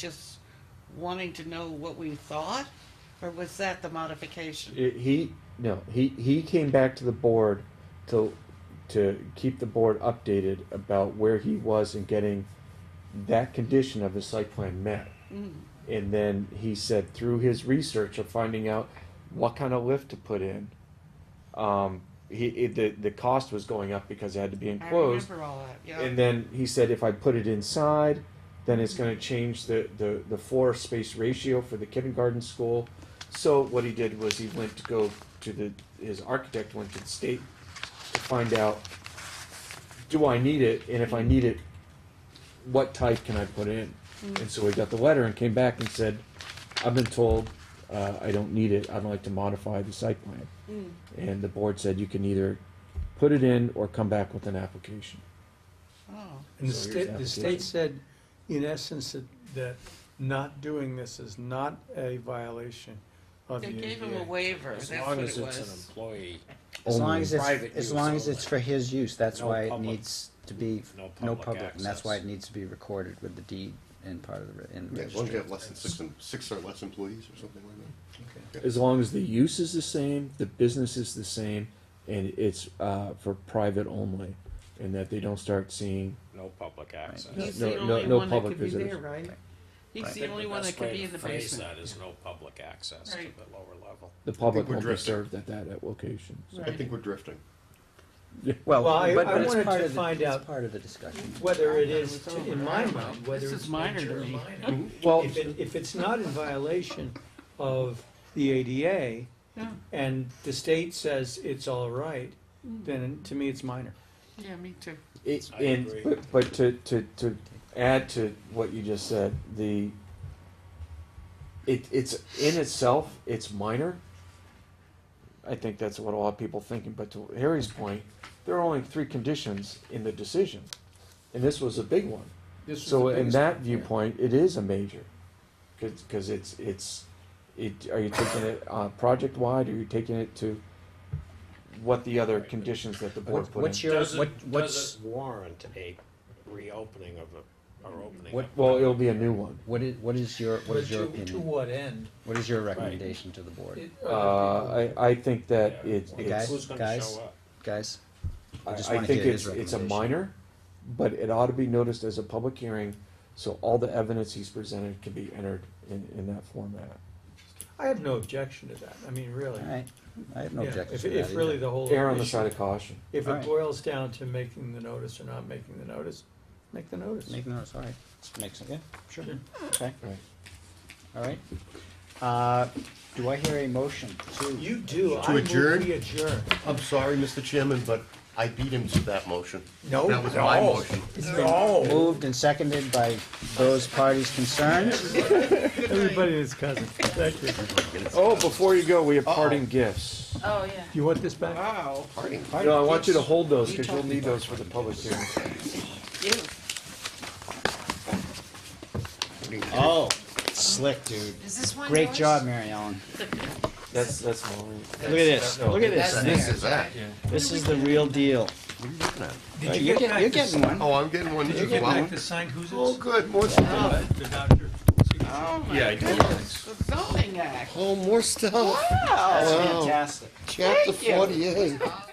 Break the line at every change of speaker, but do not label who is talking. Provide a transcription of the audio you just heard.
just wanting to know what we thought? Or was that the modification?
It- uh, he no he he came back to the board to to keep the board updated about where he was in getting that condition of his site plan met
Mm,
and then he said through his research of finding out what kind of lift to put in um he it, the the cost was going up because it had to be
I
enclosed
remember all that, yeah.
and then he said if I put it inside, then it's going to change the, the, the floor space ratio for the kindergarten school. So what he did was he went to go to the his architect went to the state to find out do I need it and if I need it, what type can I put in? And so he got the letter and came back and said, I've been told uh, I don't need it. I'd like to modify the site plan.
Mm.
And the board said you can either pput it in or come back with an application.
Oh,
And the
So here's the
state, the
application.
state said, in essence, that, that not doing this is not a violation of the
They gave him a
ADA.
waiver, that's
As
what
long
it
as it's an
was.
employee,
As long as
Private
it's, as
use
long as
only.
it's for his use, that's
No
why it
public-
needs to be,
no
no
public
public, and that's why it
access.
needs to be recorded with the deed and part of the, re- in the
Yeah, as long as you
registry.
have less than six, em- six or less employees or something like that.
as long as the use is the same, the business is the same, and it's uh, for private only, and that they don't start seeing.
no public access.
He's
no-
the
no-
only
no
one that
public
could be there,
visitors.
right? He's
Right.
the only one that could be in the basement.
That is no public access to
Right.
the lower level.
The public
we're
won't be
drifting.
served at that at location. so.
I think we're drifting.
Well,
Well, I-
but
I
but it's
wanted
part
to
of the,
find
it's
out-
part of the discussion.
Whether it is,
It's
to-
over.
in
I
my
don't know.
mind, whether
This is
it's
minor
major
to
or
me.
minor.
Well,
If it, if it's not in violation of the ADA
Yeah,
and the state says it's all right, then to me, it's minor.
Mm. yeah, me too.
it,
I
and
agree.
but, but to, to to add to what you just said, the it it's in itself it's minor. I think that's what a lot of people thinking. But to Harry's point, there are only three conditions in the decision, and this was a big one.
This was
So
the
in
biggest-
that viewpoint, it is a major, because it's it's it. Are you taking it uh, project wide? Are you taking it to what the other conditions that the board
What-
put
What's
in?
your,
Does
what,
it,
what's,
does it warrant a reopening of a, or opening
What-
up?
Well, it'll be a new one.
what is, what is your, what
But
is
to-
your
To
opinion?
what end?
What is your recommendation to the board,
It-
Uh, I I think that
Yeah.
it,
Hey,
it's
guys,
Who's gonna
guys.
show up?
guys?
I,
I just
I
wanna
think
hear
it's
his
it's a
recommendation.
minor, but it ought to be noticed as a public hearing, so all the evidence he's presented can be entered in in that format.
I have no objection to that, I mean, really.
All right, I have no
Yeah,
objection
if-
to that
If really
either.
the whole.
Err on the
issue-
side of caution.
If
All right.
it boils down to making the notice or not making the notice, make the notice.
Make notes, all right, makes, sense. yeah, sure, okay,
Right.
all right. Uh, do I hear a motion to?
You do, I
To
move
adjourn?
we adjourn.
I'm sorry, Mr. Chairman, but I beat him to that motion.
No,
That was my
no.
motion.
No.
Moved and seconded by those parties concerned.
Everybody is cousin, thank you.
Oh, before you go, we have parting gifts.
Oh, yeah.
You want this back?
Wow,
Parting.
No, I want you to hold those, because
You
you'll
told
need those for the public hearing.
you,
Oh, slick, dude.
Is this one
Great
yours?
job, Mary Ellen.
That's, that's mine.
Look at this, look at this.
This is that.
This is the real deal.
What are you looking at?
You're getting, you're getting one.
Oh, I'm getting one as well.
signed who's
Oh, good, more stuff.
The doctor.
oh my goodness, the zoning act,
Oh, more stuff.
wow.
Fantastic.
Chapter
Thank you.
forty-eight.